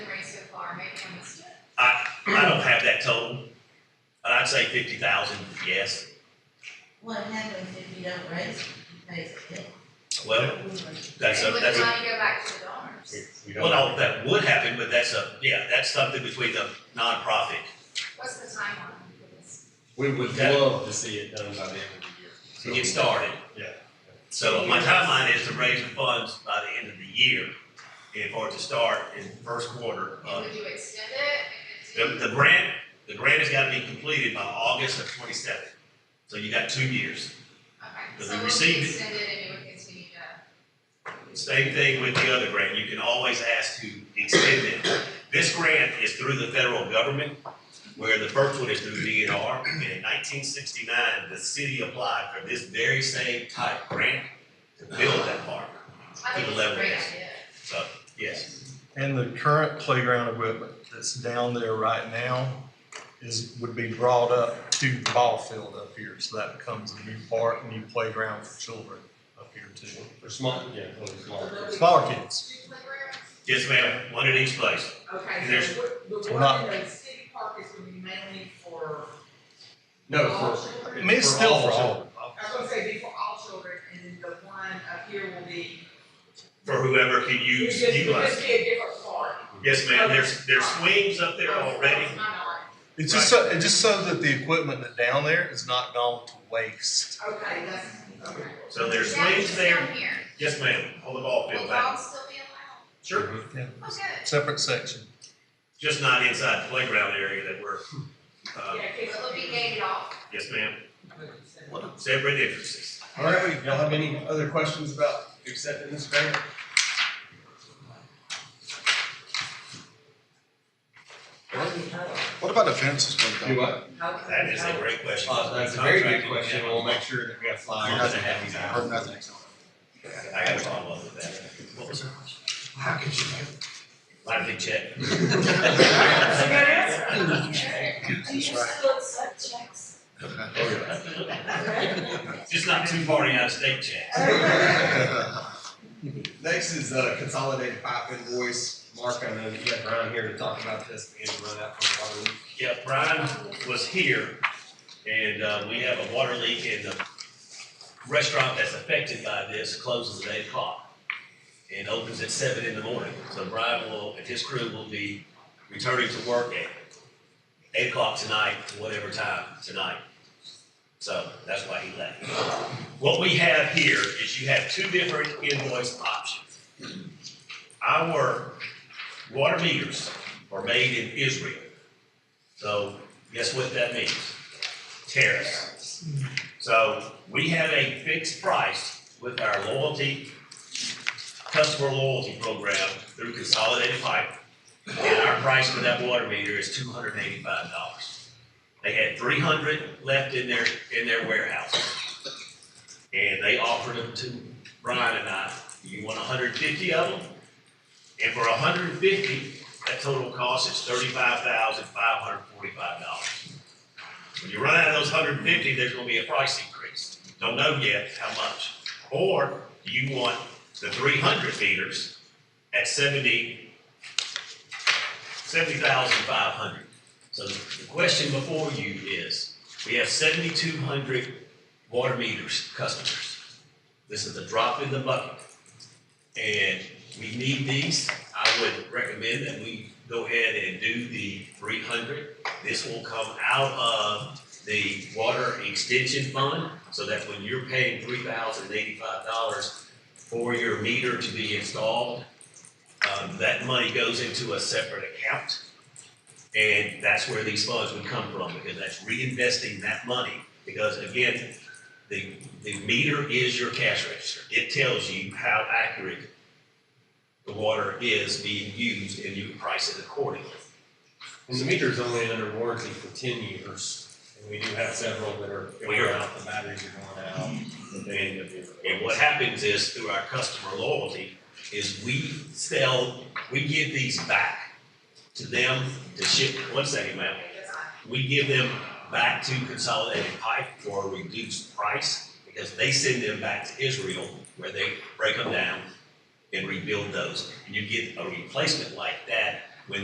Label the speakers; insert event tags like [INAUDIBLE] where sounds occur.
Speaker 1: or maybe I missed it.
Speaker 2: I don't have that total, but I'd say fifty thousand, yes.
Speaker 3: What happens if you don't raise it, you pay it?
Speaker 2: Well, that's a,
Speaker 1: It would
Speaker 2: that's a,
Speaker 1: not go back to the donors.
Speaker 4: We
Speaker 2: well,
Speaker 4: don't,
Speaker 2: no, that would happen, but that's a, yeah, that's something between the nonprofit.
Speaker 1: What's the timeline for this?
Speaker 4: we would
Speaker 2: That-
Speaker 4: love to see it done by the end of the year.
Speaker 2: to get started.
Speaker 4: Yeah.
Speaker 2: So my timeline is to raise the funds by the end of the year, and for it to start in first quarter.
Speaker 1: And
Speaker 2: Uh,
Speaker 1: would you extend it?
Speaker 2: The,
Speaker 1: if it
Speaker 2: the grant, the grant has got to be completed by August of twenty-seven, so you got two years.
Speaker 1: Okay,
Speaker 2: But
Speaker 1: so it
Speaker 2: we
Speaker 1: would be
Speaker 2: received it.
Speaker 1: extended and you would continue to,
Speaker 2: Same thing with the other grant, you can always ask to extend it. This grant is through the federal government, where the first one is through DNR. And in nineteen sixty-nine, the city applied for this very same type grant to build that park,
Speaker 1: I think
Speaker 2: the
Speaker 1: it's a
Speaker 2: level
Speaker 1: great
Speaker 2: is.
Speaker 1: idea.
Speaker 2: so, yes.
Speaker 5: And the current playground equipment that's down there right now is, would be brought up to the ball field up here. So that becomes a new park, new playground for children up here too.
Speaker 4: For small, yeah, for small.
Speaker 5: Smaller kids.
Speaker 6: Street playgrounds?
Speaker 2: Yes, ma'am, one at each place.
Speaker 6: Okay,
Speaker 2: There's-
Speaker 6: so what- the
Speaker 5: We're
Speaker 6: one
Speaker 5: not-
Speaker 6: in the city park is gonna be mainly for
Speaker 4: No,
Speaker 6: all
Speaker 4: for,
Speaker 5: I
Speaker 6: children?
Speaker 5: mean, it's
Speaker 4: For
Speaker 5: still
Speaker 4: all
Speaker 5: for all.
Speaker 4: children.
Speaker 6: I was gonna say be for all children, and then the one up here will be.
Speaker 2: for whoever can
Speaker 6: It's
Speaker 2: use,
Speaker 6: just- it's
Speaker 2: utilize.
Speaker 6: just be a different park.
Speaker 2: Yes, ma'am, there's, there's swings up there
Speaker 6: Oh,
Speaker 2: already.
Speaker 6: that's my knowledge.
Speaker 5: It's just so, it's just so that the equipment that's down there is not gone to waste.
Speaker 6: Okay, that's, okay.
Speaker 2: So there's
Speaker 1: Yeah,
Speaker 2: swings
Speaker 1: just
Speaker 2: there.
Speaker 1: down here.
Speaker 2: Yes, ma'am, hold the ball
Speaker 1: Will
Speaker 2: field back.
Speaker 1: dogs still be allowed?
Speaker 2: Sure,
Speaker 4: Mm-hmm.
Speaker 1: Oh, good.
Speaker 5: Separate section.
Speaker 2: just not inside the playground area that we're, uh,
Speaker 6: Yeah, kids
Speaker 1: Will
Speaker 6: will
Speaker 1: it be
Speaker 6: be.
Speaker 1: gated off?
Speaker 2: yes, ma'am, separate entrances.
Speaker 4: all right, y'all have any other questions about accepting this grant?
Speaker 7: What about the fences going
Speaker 4: Do
Speaker 7: down?
Speaker 4: what?
Speaker 2: That is a great question.
Speaker 4: Uh, that's a very good question, we'll make sure that we have flyers.
Speaker 2: Nothing happens
Speaker 7: Heard nothing.
Speaker 2: I got a follow up with that. What was it?
Speaker 7: How could you?
Speaker 2: Light big check.
Speaker 5: [LAUGHS]
Speaker 6: That's a good answer.
Speaker 7: Do you
Speaker 6: still accept checks?
Speaker 2: [LAUGHS] Just not too far out of state checks.
Speaker 6: [LAUGHS]
Speaker 7: [LAUGHS]
Speaker 4: Next is uh, consolidated pipe invoice. Mark, I know you got Brian here to talk about this, we had to run out for a while.
Speaker 2: Yeah, Brian was here, and uh, we have a water leak in the restaurant that's affected by this, closes at eight o'clock and opens at seven in the morning. So Brian will, and his crew will be returning to work at eight o'clock tonight, whatever time tonight. So that's why he left. What we have here is you have two different invoice options. Our water meters are made in Israel. So guess what that means? Tariffs. So we have a fixed price with our loyalty, customer loyalty program through Consolidated Pipe. And our price for that water meter is two hundred and eighty-five dollars. They had three hundred left in their, in their warehouse. And they offered them to Brian and I, you want hundred and fifty of them? And for hundred and fifty, that total cost is thirty-five thousand, five hundred forty-five dollars. When you run out of those hundred and fifty, there's gonna be a price increase. Don't know yet how much. Or do you want the three hundred meters at seventy, seventy thousand, five hundred? So the question before you is, we have seventy-two hundred water meters, customers. This is a drop in the bucket. And we need these. I would recommend that we go ahead and do the three hundred. This will come out of the water extension fund, so that when you're paying three thousand eighty-five dollars for your meter to be installed, um, that money goes into a separate account. And that's where these funds would come from, because that's reinvesting that money. Because again, the, the meter is your cash register. It tells you how accurate the water is being used and you can price it accordingly.
Speaker 4: And the meter is only under warranty for ten years, and we do have several that are going out, the batteries are going out. They need to be replaced.
Speaker 2: And what happens is through our customer loyalty is we sell, we give these back to them to ship, one second, ma'am. We give them back to Consolidated Pipe for a reduced price because they send them back to Israel where they break them down and rebuild those. And you get a replacement like that